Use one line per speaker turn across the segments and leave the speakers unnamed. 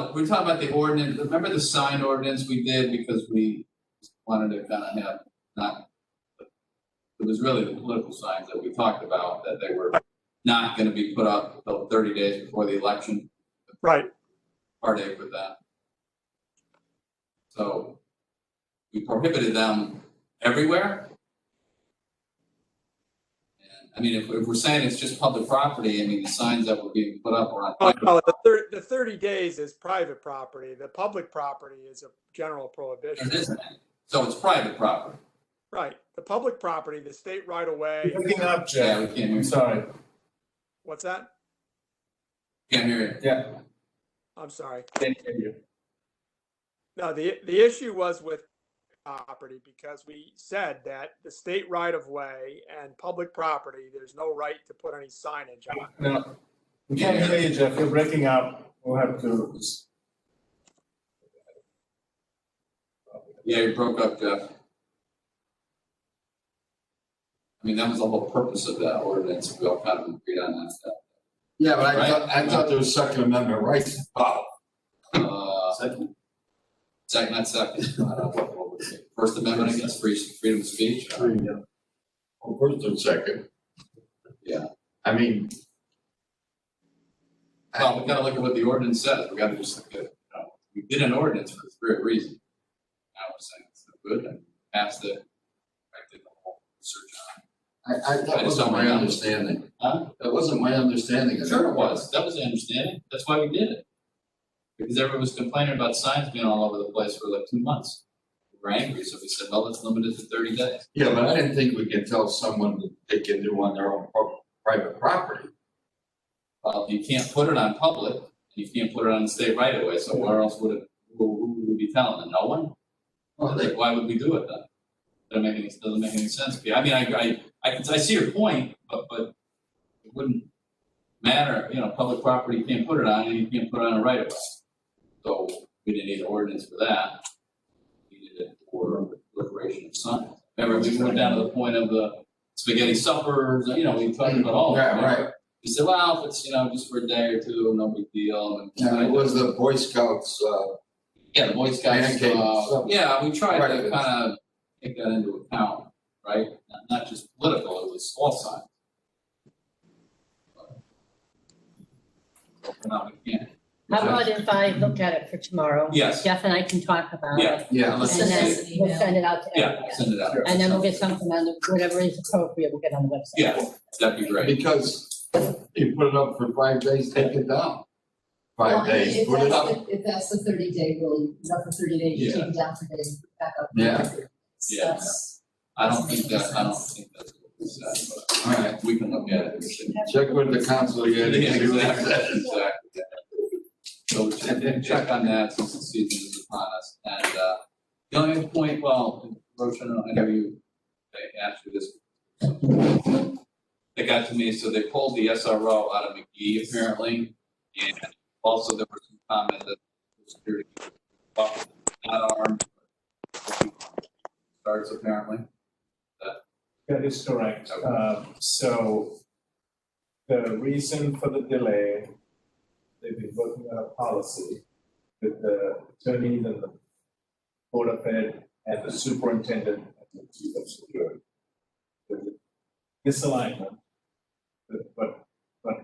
uh, we we're talking about the ordinance, remember the sign ordinance we did because we wanted to kind of have, not. It was really the political signs that we talked about, that they were not gonna be put up until thirty days before the election,
Right,
heartache with that. So we prohibited them everywhere. And, I mean, if, if we're saying it's just public property, I mean, the signs that were being put up were on.
Oh, no, the thirty, the thirty days is private property, the public property is a general prohibition.
There isn't any. So it's private property.
Right, the public property, the state right away.
You're Picking up,
Yeah, we
Jeff.
can't hear
I'm
you.
sorry.
what's that?
Can't hear you.
Yeah,
I'm sorry.
can't hear you.
No, the, the issue was with property because we said that the state right of way and public property, there's no right to put any signage on.
No, we can't hear you, Jeff. You're breaking up. We'll have to.
Yeah, you broke up, Jeff. I mean, that was the whole purpose of that ordinance. We all kind of agreed on that stuff.
Yeah, but
Right?
I thought, I thought there was Second Amendment rights. Oh,
Uh,
second.
Second, not second, I don't know what- what was it. First Amendment against free, freedom of speech. Uh,
Well, Oh, First and second.
Yeah.
I mean.
Well, we gotta look at what the ordinance says, we gotta just look at, you know, we did an ordinance for a great reason. Now we're saying it's not good, and passed it, I did the whole research
I, I, that wasn't my understanding.
on it. Huh?
That wasn't my understanding. of
Sure it was, that was the understanding, that's why we did it. Because everyone was complaining about signs being all over the place for like two months. We were angry, so we said, well, let's limit it to thirty days.
Yeah, but I didn't think we could tell someone that they can do on their own pro- private property.
Well, you can't put it on public, you can't put it on the state right away, so where else would it, who, who would be telling them, no one?
Well,
Like,
they,
why would we do it then? Doesn't make any, doesn't make any sense. to me. I mean, I, I, I can, I see your point, but, but it wouldn't matter, you know, public property, you can't put it on, and you can't put it on a right of way. So we didn't need an ordinance for that. We did it for liberation of signs. Remember, we went down to the point of the spaghetti suppers, you know, we talked about all of that.
yeah, right.
We said, well, if it's, you know, just for a day or two, no big deal, and.
Yeah, it was the Boy Scouts, uh,
Yeah, the Boy Scouts,
Pancake
uh,
supper.
yeah, we tried to
Breakfast.
kind of take that into account, right? Not- Not just political, it was all sides. But now we can't.
How about if I look at it for tomorrow?
Yes.
Jeff and I can talk about it.
Yeah.
yeah.
And
Let's
then
just-
send us an
we'll
email.
send it out to
Yeah,
everyone.
send it out.
And then we'll get something on the, whatever is appropriate, we'll get on the website.
Yeah, that'd be great.
Because you put it up for five days, take it down.
Well,
Five
if-
days,
if
put it
that's
up.
the- If that's the thirty day rule, it's up for thirty days, you take it down for days, put it back up.
Yeah.
Yeah.
That's-
I don't think that, I don't think that's what we said, but
All right,
we can look at it. We can-
check with the council again.
Yeah, exactly, exactly. So we should check on that since the season is upon us. And, uh, the only other point, well, Roshan, I know you, they asked you this. They got to me, so they pulled the SRO out of McGee apparently, and also there were some comments that the security officer was not armed. Starts apparently.
That is correct. Um, So the reason for the delay, they've been working on a policy with the attorneys and the board of ed and the superintendent and the chief of security. There's a Misalignment, but- but, but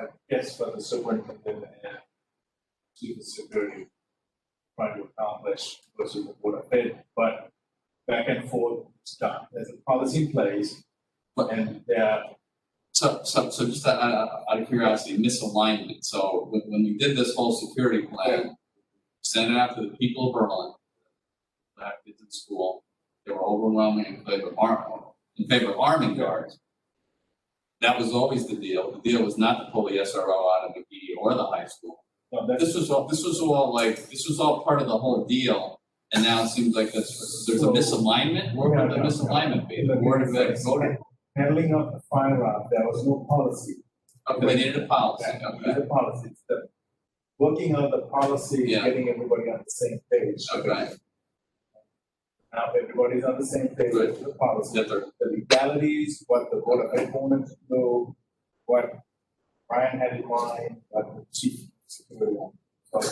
I guess for the superintendent and chief of security trying to accomplish versus the board of ed, but back and forth stuff. There's a policy in place
But-
and they are
So, so, so just out, out- out of curiosity, misalignment, so when, when we did this whole security plan, sent it out to the people of Berlin, that kids in school, they were overwhelming in favor of arm, in favor of arming guards. That was always the deal, the deal was not to pull the SRO out of McGee or the high school.
no, that's
This was all, this was all like, this was all part of the whole deal, and now it seems like there's, there's a
So-
misalignment, where would the
No, no, no.
misalignment be? The Board of Ed voted,
handling of the firearm, there was no policy.
okay, they needed a policy,
That
okay.
is the policy, it's the working on the policy,
Yeah.
getting everybody on the same page.
Okay.
Now everybody's on the same page
Good.
with the policy.
that they're
The legalities, what the board of ed opponents know, what Brian had in mind, what the chief. of security wanted.